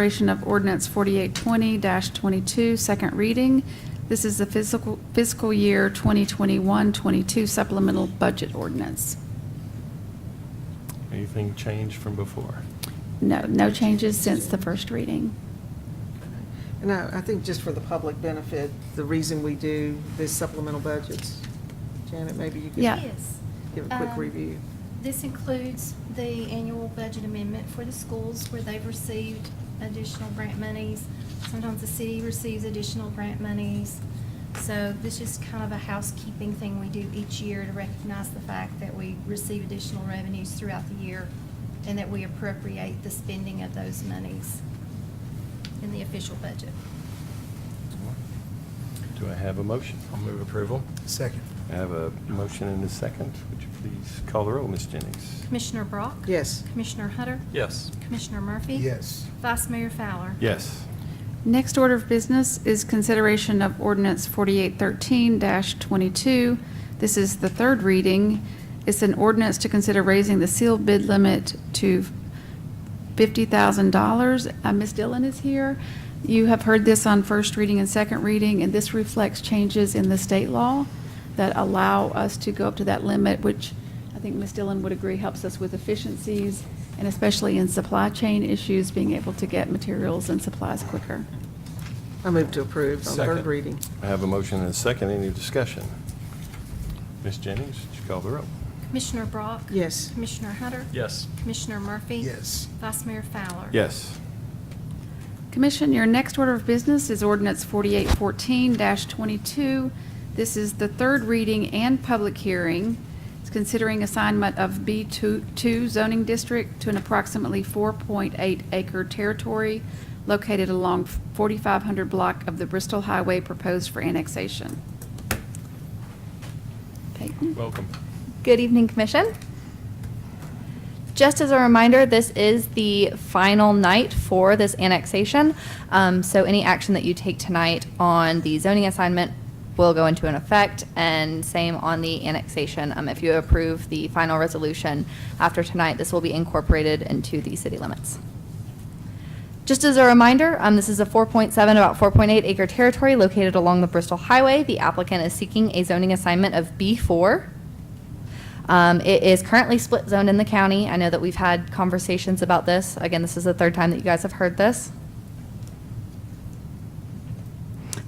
Consideration of ordinance 4820-22, second reading. This is the fiscal fiscal year 2021-22 supplemental budget ordinance. Anything changed from before? No, no changes since the first reading. And I, I think just for the public benefit, the reason we do this supplemental budgets, Janet, maybe you Yeah. could Yes. give a quick Um, review. This includes the annual budget amendment for the schools where they've received additional grant monies. Sometimes the city receives additional grant monies. So this is kind of a housekeeping thing we do each year to recognize the fact that we receive additional revenues throughout the year and that we appropriate the spending of those monies in the official budget. Do I have a motion? I'll move approval. Second. I have a motion and a second. Would you please call the roll, Ms. Jennings? Commissioner Brock? Yes, Commissioner Hunter? Yes. Commissioner Murphy? Yes. Vice Mayor Fowler? Yes. Next order of business is consideration of ordinance 4813-22. This is the third reading. It's an ordinance to consider raising the sealed bid limit to $50,000. Uh, Ms. Dillon is here. You have heard this on first reading and second reading, and this reflects changes in the state law that allow us to go up to that limit, which I think Ms. Dillon would agree helps us with efficiencies, and especially in supply chain issues, being able to get materials and supplies quicker. I move to approve on Oh, third Second. reading. I have a motion and a second. Any discussion? Ms. Jennings, would you call the roll? Commissioner Brock? Yes, Commissioner Hunter? Yes. Commissioner Murphy? Yes. Vice Mayor Fowler? Yes. Commission, your next order of business is ordinance 4814-22. This is the third reading and public hearing. It's considering assignment of B2 two zoning district to an approximately 4.8 acre territory located along 4500 block of the Bristol Highway proposed for annexation. Peyton? Welcome. Good evening, Commission. Just as a reminder, this is the final night for this annexation. Um, So any action that you take tonight on the zoning assignment will go into an effect, and same on the annexation. Um, If you approve the final resolution after tonight, this will be incorporated into the city limits. Just as a reminder, um, this is a 4.7, about 4.8 acre territory located along the Bristol Highway. The applicant is seeking a zoning assignment of B4. Um, it is currently split zoned in the county. I know that we've had conversations about this. Again, this is the third time that you guys have heard this.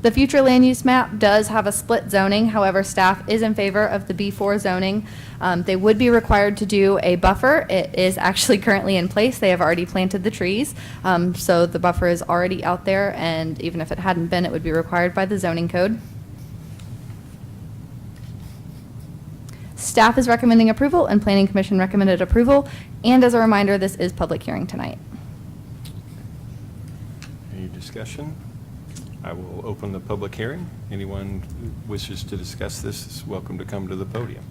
The future land use map does have a split zoning, however, staff is in favor of the B4 zoning. Um, They would be required to do a buffer. It is actually currently in place. They have already planted the trees. Um, So the buffer is already out there, and even if it hadn't been, it would be required by the zoning code. Staff is recommending approval, and Planning Commission recommended approval. And as a reminder, this is public hearing tonight. Any discussion? I will open the public hearing. Anyone who wishes to discuss this is welcome to come to the podium.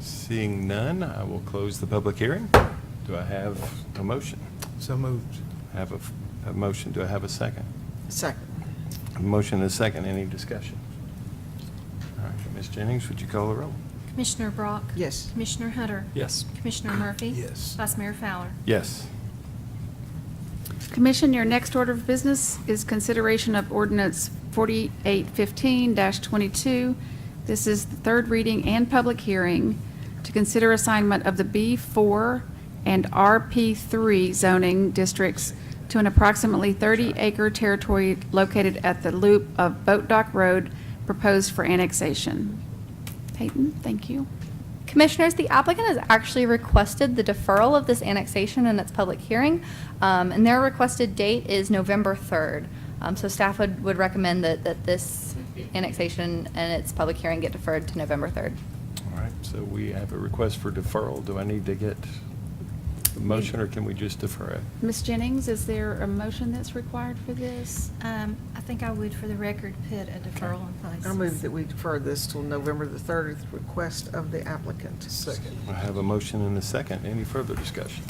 Seeing none, I will close the public hearing. Do I have a motion? So moved. I Have a f- a, motion, do I have a second? second. A motion and a second, any discussion? All right, Ms. Jennings, would you call the roll? Commissioner Brock? Yes, Commissioner Hunter? Yes. Commissioner Murphy? Yes. Vice Mayor Fowler? Yes. Commission, your next order of business is consideration of ordinance 4815-22. This is the third reading and public hearing to consider assignment of the B4 and RP3 zoning districts to an approximately 30-acre territory located at the loop of Boat Dock Road proposed for annexation. Peyton, thank you. Commissioners, the applicant has actually requested the deferral of this annexation and its public hearing, um, and their requested date is November 3rd. Um, So staff would would recommend that that this annexation and its public hearing get deferred to November 3rd. All right, so we have a request for deferral. Do I need to get a motion, or can we just defer it? Ms. Jennings, is there a motion that's required for this? Um, I think I would, for the record, put a deferral in place. I move that we defer this till November the 30th, request of the applicant. Second. I have a motion and a second. Any further discussion?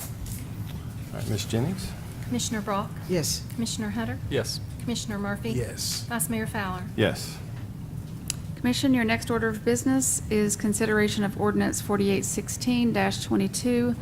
All right, Ms. Jennings? Commissioner Brock? Yes, Commissioner Hunter? Yes. Commissioner Murphy? Yes. Vice Mayor Fowler? Yes. Commission, your next order of business is consideration of ordinance 4816-22,